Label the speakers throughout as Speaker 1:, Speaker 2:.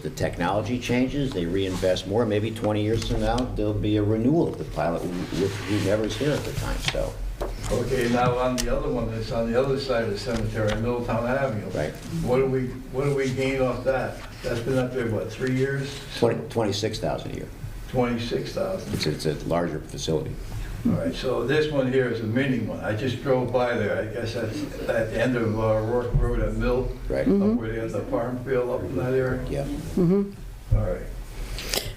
Speaker 1: The technology changes, they reinvest more, maybe 20 years from now, there'll be a renewal of the pilot with whomever's here at the time, so,
Speaker 2: Okay, now on the other one, that's on the other side of the cemetery, Middletown Avenue.
Speaker 1: Right.
Speaker 2: What do we, what do we gain off that? That's been up there, what, three years?
Speaker 1: 20 26,000 a year.
Speaker 2: Twenty-six thousand.
Speaker 1: It's, it's a larger facility.
Speaker 2: All right, so this one here is a mini one. I just drove by there. I guess that's at the end of uh, Rourke Road at Mill.
Speaker 1: Right.
Speaker 2: Up
Speaker 3: Mm-hmm.
Speaker 2: where they have the farm field up in that area.
Speaker 1: Yeah.
Speaker 2: All right.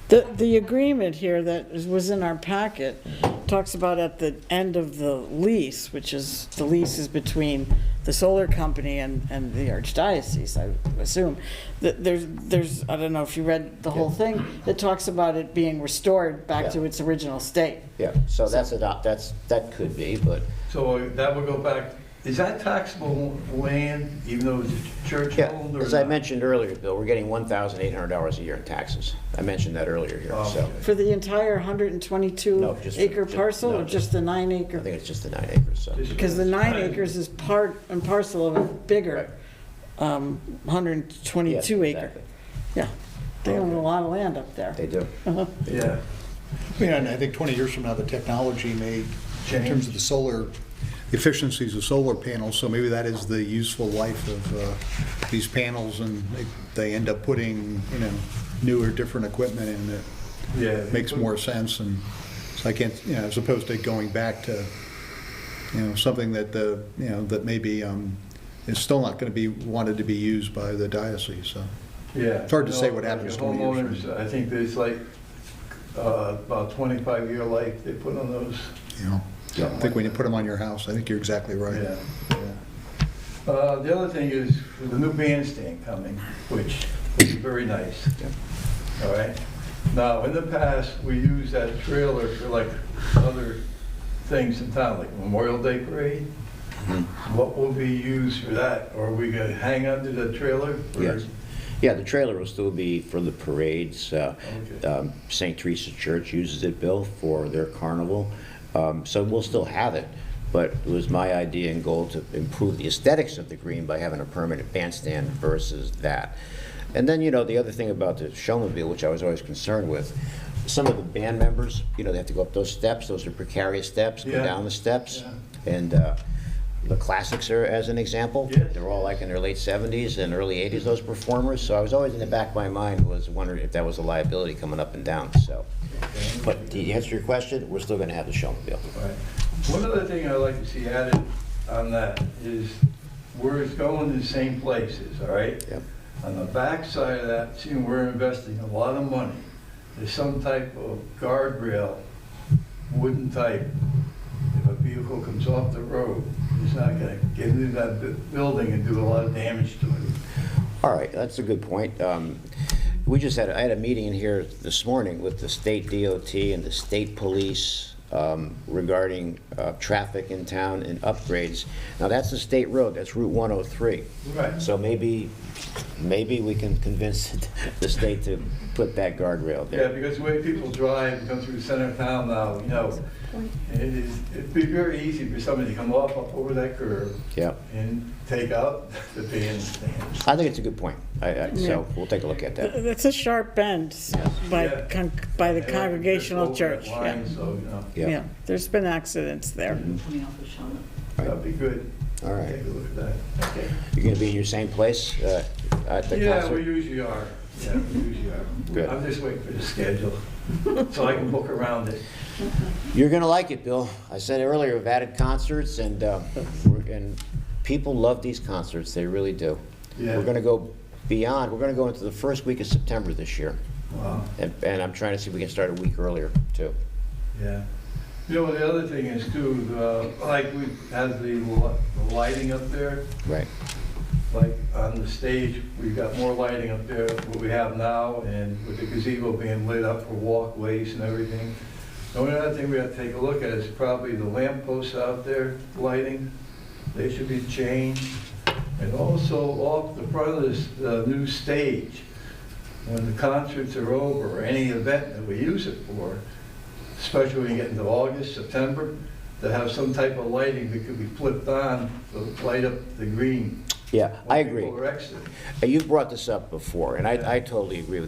Speaker 3: The, the agreement here that is- was in our packet talks about at the end of the lease, which is, the lease is between the solar company and, and the archdiocese, I assume, that there's, there's, I don't know if you read the whole thing, it talks about it being restored back to
Speaker 1: Yeah.
Speaker 3: its original state.
Speaker 1: Yeah, so that's, a dot- that's, that could be, but,
Speaker 2: So that would go back, is that taxable land, even though it's church
Speaker 1: yeah,
Speaker 2: owned or
Speaker 1: as I
Speaker 2: not?
Speaker 1: mentioned earlier, Bill, we're getting $1,800 a year in taxes. I mentioned that earlier here,
Speaker 2: Oh,
Speaker 1: so,
Speaker 2: okay.
Speaker 3: For the entire hundred and
Speaker 1: No,
Speaker 3: twenty-two
Speaker 1: just for-
Speaker 3: acre
Speaker 1: ju-
Speaker 3: parcel,
Speaker 1: no,
Speaker 3: or just the nine
Speaker 1: I think
Speaker 3: acre?
Speaker 1: it's just the nine acres, so.
Speaker 2: Just-
Speaker 3: Because the nine acres is part and parcel of a bigger, um, hundred and
Speaker 1: Yeah,
Speaker 3: twenty-two acre.
Speaker 1: exactly.
Speaker 3: Yeah, they own a lot of land up there.
Speaker 1: They do.
Speaker 2: Yeah.
Speaker 4: Yeah, and I think 20 years from now, the technology may, in terms of the solar, the efficiencies of solar panels, so maybe that is the useful life of uh, these panels, and they- they end up putting, you know, newer, different equipment in that
Speaker 2: Yeah.
Speaker 4: makes more sense, and so I can't, you know, as opposed to going back to, you know, something that the, you know, that maybe um, is still not going to be, wanted to be used by the diocese, so.
Speaker 2: Yeah.
Speaker 4: It's hard to say what
Speaker 2: No,
Speaker 4: happens
Speaker 2: like
Speaker 4: to me.
Speaker 2: Homeowners, I think there's like uh, about 25-year life they put on those.
Speaker 4: You know, so I think when you put them on your house, I think you're exactly right.
Speaker 2: Yeah, yeah. Uh, The other thing is the new bandstand coming, which is very nice. All right? Now, in the past, we used that trailer for like other things in town, like Memorial Day Parade.
Speaker 4: Mm-hmm.
Speaker 2: What will be used for that? Are we going to hang under the trailer? or-
Speaker 1: Yes. Yeah, the trailer will still be for the parades. Uh,
Speaker 2: Okay.
Speaker 1: um, St. Teresa Church uses it, Bill, for their carnival. Um, So we'll still have it, but it was my idea and goal to improve the aesthetics of the green by having a permanent bandstand versus that. And then, you know, the other thing about the showmobile, which I was always concerned with, some of the band members, you know, they have to go up those steps, those are precarious steps, go
Speaker 2: Yeah.
Speaker 1: down the steps. And uh, the classics are, as an example,
Speaker 2: Yes.
Speaker 1: they're all like in their late 70s and early 80s, those performers, so I was always in the back of my mind was wondering if that was a liability coming up and down, so. But to answer your question, we're still gonna have the showmobile.
Speaker 2: Right. One other thing I'd like to see added on that is where it's going to the same places, all right?
Speaker 1: Yep.
Speaker 2: On the backside of that, seeing we're investing a lot of money, there's some type of guardrail, wooden type. If a vehicle comes off the road, it's not gonna get into that bu- building and do a lot of damage to it.
Speaker 1: All right, that's a good point. Um, We just had, I had a meeting in here this morning with the state DOT and the state police um, regarding uh, traffic in town and upgrades. Now, that's a state road, that's Route 103.
Speaker 2: Right.
Speaker 1: So maybe, maybe we can convince the state to put that guardrail
Speaker 2: Yeah,
Speaker 1: there.
Speaker 2: because the way people drive and come through the center of town now, you know, it is, it'd be very easy for somebody to come off up over that curve
Speaker 1: Yeah,
Speaker 2: and take out the bandstand.
Speaker 1: I think it's a good point. I- I- So we'll take a look at that.
Speaker 3: That's a sharp bend by,
Speaker 2: Yeah.
Speaker 3: con- by the
Speaker 2: And uh,
Speaker 3: Congregational
Speaker 2: just over that
Speaker 3: Church, yeah.
Speaker 2: line, So, you know,
Speaker 1: Yeah, Mm-hmm.
Speaker 3: Yeah, there's been accidents there.
Speaker 5: coming off of Shawna.
Speaker 2: that'd be good.
Speaker 1: all right.
Speaker 2: Take a look at that. Okay.
Speaker 1: You're going to be in your same place uh, at the
Speaker 2: Yeah, we
Speaker 1: concert?
Speaker 2: usually are. Yeah, we usually are.
Speaker 1: Good.
Speaker 2: I'm just waiting for the schedule, so I can book around it.
Speaker 1: You're going to like it, Bill. I said earlier, we've added concerts, and, uh, we're- and people love these concerts, they really do.
Speaker 2: Yeah.
Speaker 1: We're going to go beyond, we're going to go into the first week of September this year,
Speaker 2: Wow.
Speaker 1: and and I'm trying to see if we can start a week earlier, too.
Speaker 2: Yeah. You know, the other thing is too, uh, like we have the li- the lighting up there,
Speaker 1: Right.
Speaker 2: like on the stage, we've got more lighting up there than what we have now, and with the gazebo being lit up for walkways and everything. The only other thing we have to take a look at is probably the lamp posts out there, lighting, they should be changed. And also off the front of this, the new stage, when the concerts are over, or any event that we use it for, especially when you get into August, September, to have some type of lighting that could be flipped on, to light up the green.
Speaker 1: Yeah, I
Speaker 2: When
Speaker 1: agree.
Speaker 2: People are exiting.
Speaker 1: Uh, You brought this up before, and I, I totally agree with